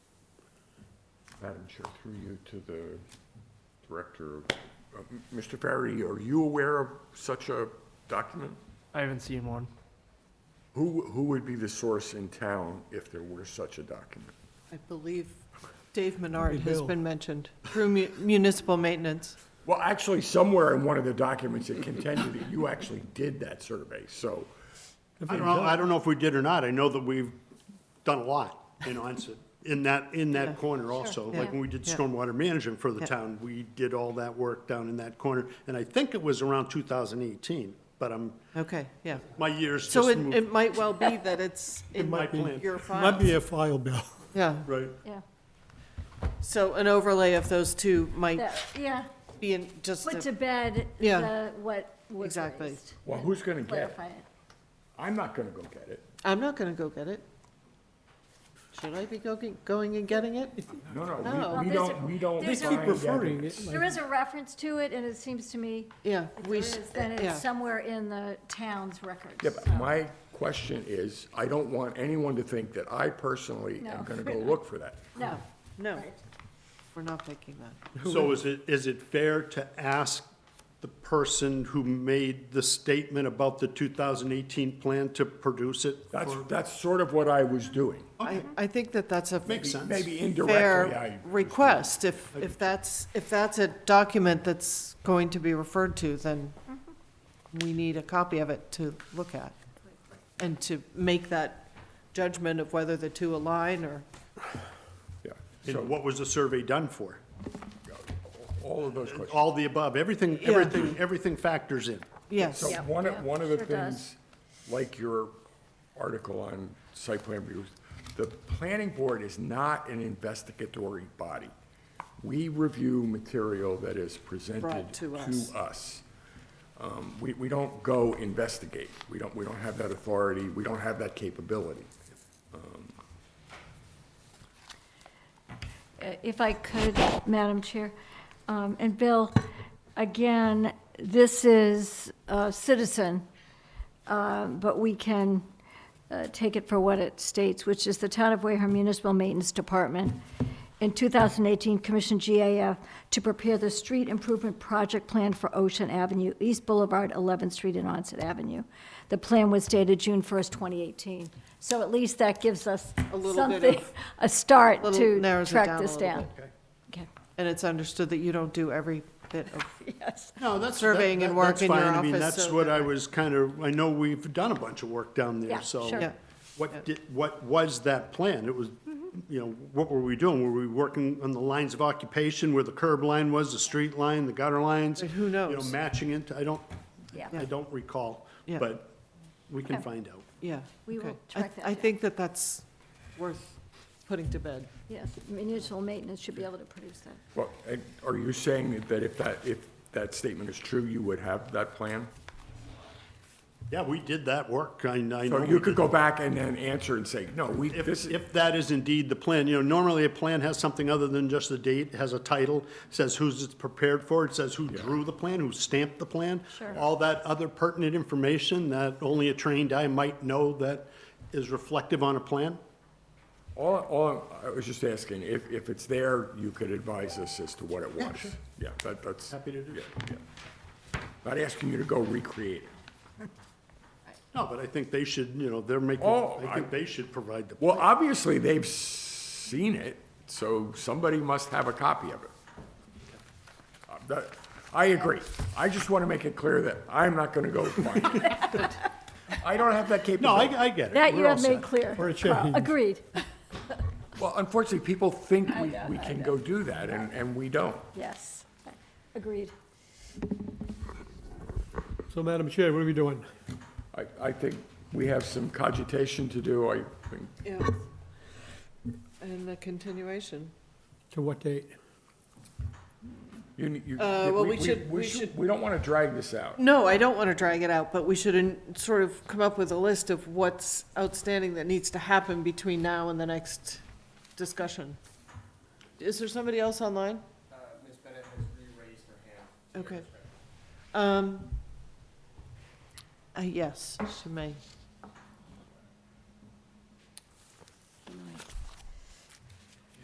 Madam Chair, through you to the Director. of- uh, Mr. Ferry, are you aware of such a document? I haven't seen one. Who, who would be the source in town if there were such a document? I believe Dave Menard has been mentioned through mu- municipal maintenance. Well, actually, somewhere in one of the documents, it contended that you actually did that survey, so. I don't know, I don't know if we did or not. I know that we've done a lot in onset, in that, in Yeah, that corner also. yeah, Like when we did yeah. stormwater management for the Yeah. town, we did all that work down in that corner. And I think it was around two thousand eighteen, but I'm, Okay, yeah. my years just So it, moved. it might well be that it's in might be. your Might be file. a file bill. Yeah, Right. Yeah, so an overlay of those two might that- yeah, be in just, put to a- bed Yeah. the, what was Exactly. raised. Well, who's gonna get it? Clarify it. I'm not gonna go get it. I'm not going to go get it. Should I be go- going and getting it? No, No. no, Well, we- we there's don't, a- we don't. there's a- find Referring evidence. it, There like, is a reference to it, and it seems to me, Yeah, if there we, is, sh- that yeah. it's somewhere in the town's records. Yeah, but so- my question is, I don't want anyone to think that I personally No. am gonna go look for that. No, no, right. we're not thinking that. So is it, is it fair to ask the person who made the statement about the two thousand eighteen plan to produce it? That's, that's sort of what I was doing. I, I think that that's a Makes sense. Maybe indirectly, I. fair request. If, if that's, if that's a document that's going to be referred to, then we need a copy of it to look at and to make that judgment of whether the two align or, Yeah. And what was the survey done for? All of those questions. All the above, everything, Yeah. everything, everything factors in. So yes, Yeah, one, of- yeah, one of the sure does. things, like your article on site plan reviews, the planning board is not an investigatory body. We review material that is presented Brought to to us. us. Um, We, we don't go investigate. We don't, we don't have that authority. We don't have that capability. Uh, if I could, Madam Chair, um, and Bill, again, this is a citizen, uh, but we can uh, take it for what it states, which is the Town of Wareham Municipal Maintenance Department in 2018 commissioned GAF to prepare the street improvement project plan for Ocean Avenue, East Boulevard, 11th Street, and Onset Avenue. The plan was dated June 1st, 2018. So at least that gives us A little bit something, of- a start Little- to narrows it track down a this little down. Okay. and it's understood that you don't do every bit of, Yes. No, that's. Surveying that- and that- work that's in your fine. I mean, office, that's so what that- I was kind of, I know we've done a bunch of work down Yeah, there, so. sure. Yeah. What did, what was that plan? It was, Mm-hmm. you know, what were we doing? Were we working on the lines of occupation where the curb line was, the street line, the gutter lines? But who You knows? know, matching it, I don't, Yeah. I don't recall, Yeah. but we can Okay. find out. yeah. We will okay. I- track that I down. think that that's worth putting to bed. Yes, municipal maintenance should be able to produce that. Well, and are you saying that- that if that, if that statement is true, you would have that plan? Yeah, we did that work, I, I know. So we you could did. go back and then answer and say, no, we, this If, is, if that is indeed the plan, you know, normally a plan has something other than just the date, has a title, says who's it's prepared for, it says who drew the plan, who stamped the plan. Sure. All that other pertinent information that only a trained eye might know that is reflective on a plan. all, all, I was just asking, if, if it's there, you could advise us as to what it was. sure. Yeah, that, that's. Happy to do yeah, yeah. Not asking you to go recreate it. No, but I think they should, you know, they're making, Oh, I think they should provide the. Well, obviously, they've seen it, so somebody must have a copy of it. Uh, that- I agree. I just want to make it clear that I'm not going to go find it. I don't have that No, capability. I, I get it. That you We're all have made set. clear. For a change. Agreed. Well, unfortunately, people think we, we can go do that, and, and we don't. Yes, agreed. So Madam Chair, what are we doing? I, I think we have some cogitation to do, I think, Yeah. And the continuation. To what date? you, ne- you. Uh, well, we should- we should- We don't want to drag this out. No, I don't want to drag it out, but we should in- sort of come up with a list of what's outstanding that needs to happen between now and the next discussion. Is there somebody else online? Uh, Ms. Bennett has re-raised her hand. Okay. Um, uh, yes, she may.